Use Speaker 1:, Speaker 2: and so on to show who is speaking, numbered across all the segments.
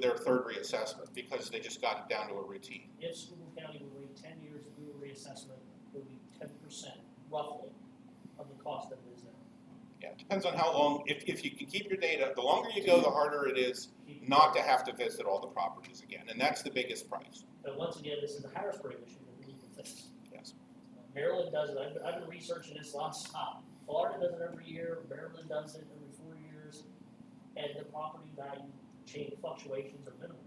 Speaker 1: their third reassessment because they just got it down to a routine.
Speaker 2: If Schuylkill County would wait ten years to do a reassessment, it would be ten percent roughly of the cost that it is now.
Speaker 1: Yeah, it depends on how long, if, if you can keep your data, the longer you go, the harder it is not to have to visit all the properties again, and that's the biggest price,
Speaker 2: But once again, this is a Harrisburg issue that we need to fix.
Speaker 1: yes.
Speaker 2: Maryland does it, I've, been- I've been researching this nonstop. Florida does it every year, Maryland does it every four years, and the property value change fluctuations are minimal.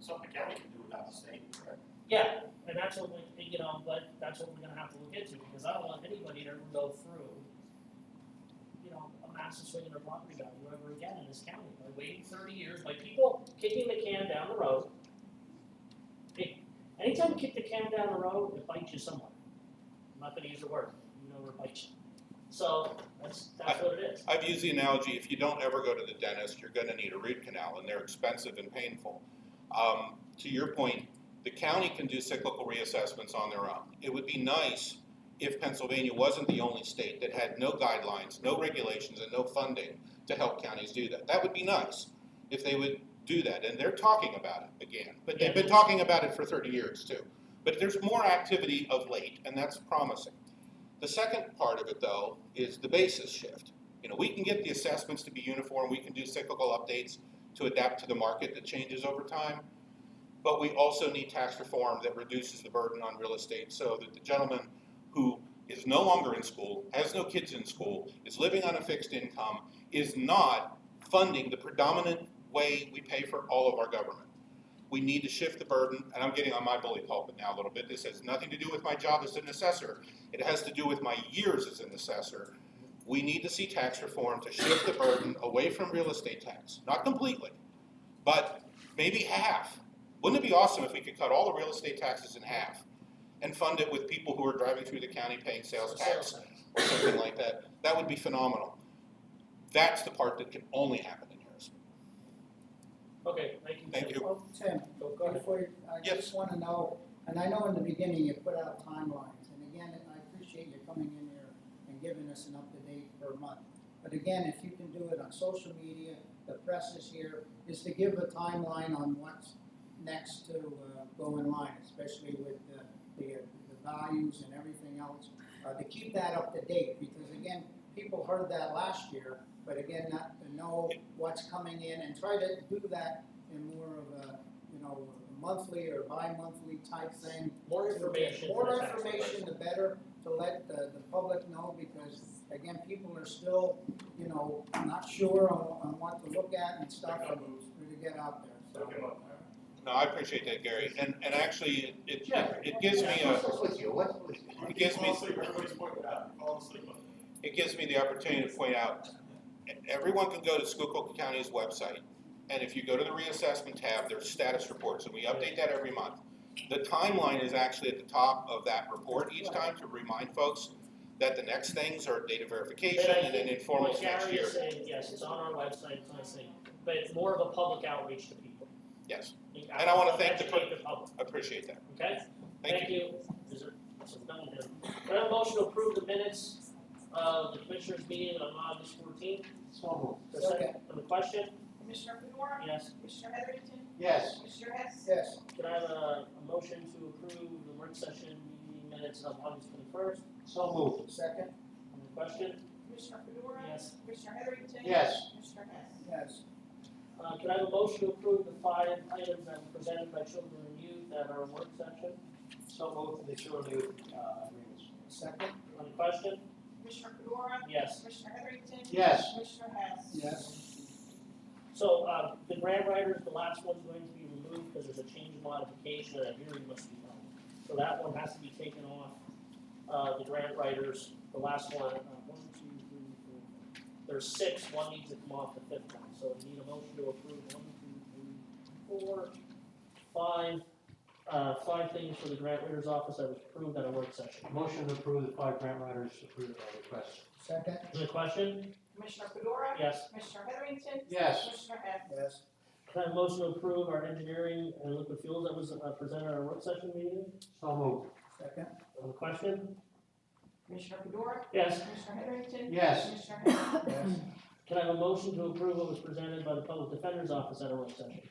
Speaker 3: Something county can do without the state, correct?
Speaker 2: Yeah, and that's what we, you know, but that's what we're gonna have to look into, because I don't want anybody to ever go through, you know, a massive swing in their property value ever again in this county, by waiting thirty years, by people kicking the can down the road. Hey, Anytime you kick the can down the road, it bites you somewhere. I'm not gonna use the word, you know where it bites you. So, that's, that's what it is.
Speaker 1: I've used the analogy, if you don't ever go to the dentist, you're gonna need a root canal, and they're expensive and painful. Um, to your point, the county can do cyclical reassessments on their own. It would be nice if Pennsylvania wasn't the only state that had no guidelines, no regulations, and no funding to help counties do that. That would be nice if they would do that, and they're talking about it again, but they've been talking about it for thirty years too. But there's more activity of late, and that's promising. The second part of it, though, is the basis shift. You know, we can get the assessments to be uniform, we can do cyclical updates to adapt to the market that changes over time, but we also need tax reform that reduces the burden on real estate so that the gentleman who is no longer in school, has no kids in school, is living on a fixed income, is not funding the predominant way we pay for all of our government. We need to shift the burden, and I'm getting on my bully pulpit now a little bit. This has nothing to do with my job as an assessor. It has to do with my years as an assessor. We need to see tax reform to shift the burden away from real estate tax, not completely, but maybe half. Wouldn't it be awesome if we could cut all the real estate taxes in half and fund it with people who are driving through the county paying sales tax or something like that? That would be phenomenal. That's the part that can only happen in Harrisburg.
Speaker 2: Okay, thank you.
Speaker 1: Thank you.
Speaker 4: Well, Tim,
Speaker 2: Go, go ahead.
Speaker 4: before, you- I just wanna know, and I know in the beginning you put out timelines, and again, I appreciate you coming in here and giving us an up-to-date per month. But again, if you can do it on social media, the press is here, is to give a timeline on what's next to uh, go in line, especially with the, the, the values and everything else. Uh, to keep that up to date, because again, people heard that last year, but again, not to know what's coming in and try to do that in more of a, you know, monthly or bi-monthly type thing.
Speaker 2: More information. for the
Speaker 4: More
Speaker 2: tax
Speaker 4: information, the better to let the, the public know, because again, people are still, you know, not sure on, on what to look at and stuff, and to get out there, so.
Speaker 3: Look 'em up.
Speaker 1: No, I appreciate that, Gary, and, and actually, it, it- it gives me uh,
Speaker 3: Yeah,
Speaker 1: a,
Speaker 3: what's up with you, what's with you?
Speaker 1: It gives me-
Speaker 3: Fall asleep, everybody's pointing out, fall asleep on it.
Speaker 1: it gives me the opportunity to point out, everyone can go to Schuylkill County's website, and if you go to the reassessment tab, there's status reports, and we update that every month. The timeline is actually at the top of that report each time to remind folks that the next things are data verification and then informals next
Speaker 2: Like Gary
Speaker 1: year.
Speaker 2: is saying, yes, it's on our website, it's on the thing, but it's more of a public outreach to people.
Speaker 1: Yes,
Speaker 2: And
Speaker 1: I wanna thank the
Speaker 2: Educate the public,
Speaker 1: appreciate that,
Speaker 2: okay?
Speaker 1: thank you.
Speaker 2: Is there, so done here. Can I have a motion to approve the minutes of the commissioners meeting on August fourteenth?
Speaker 3: So
Speaker 2: The second, on the question,
Speaker 5: Commissioner Fedora,
Speaker 2: yes,
Speaker 5: Commissioner Heatherington,
Speaker 3: Yes,
Speaker 5: Commissioner Hess,
Speaker 4: Yes,
Speaker 2: can I have a, a motion to approve the work session meeting minutes of August twenty-first?
Speaker 3: so moved.
Speaker 4: second,
Speaker 2: On the question,
Speaker 5: Commissioner Fedora,
Speaker 2: yes,
Speaker 5: Commissioner Heatherington.
Speaker 3: Yes.
Speaker 5: Commissioner Hess.
Speaker 4: yes,
Speaker 2: uh, can I have a motion to approve the five items that were presented by children and youth at our work session?
Speaker 3: So moved, they sure do, uh, agreements.
Speaker 4: second,
Speaker 2: On the question,
Speaker 5: Commissioner Fedora,
Speaker 2: yes,
Speaker 5: Commissioner Heatherington.
Speaker 3: Yes.
Speaker 5: Commissioner Hess.
Speaker 4: yes,
Speaker 2: So, uh, the grant writers, the last one's going to be removed because there's a change in modification and a hearing must be held. So that one has to be taken off, uh, the grant writers, the last one, uh, one, two, three, four. There's six, one needs to come off the fifth one, so we need a motion to approve one, two, three, four, five, uh, five things for the grant writers office that was approved at a work session.
Speaker 6: Motion to approve the five grant writers approved by request.
Speaker 4: second,
Speaker 2: Is there a question?
Speaker 5: Commissioner Fedora.
Speaker 2: Yes.
Speaker 5: Commissioner Heatherington.
Speaker 3: Yes.
Speaker 5: Commissioner Hess.
Speaker 4: yes,
Speaker 2: Can I have a motion to approve our engineering and liquid fuels that was uh, presented at our work session meeting?
Speaker 6: So moved.
Speaker 4: second,
Speaker 2: On the question?
Speaker 5: Commissioner Fedora,
Speaker 2: Yes.
Speaker 5: Commissioner Heatherington.
Speaker 3: Yes.
Speaker 5: Commissioner Hess.
Speaker 4: yes,
Speaker 2: Can I have a motion to approve what was presented by the Public Defender's Office at our work session?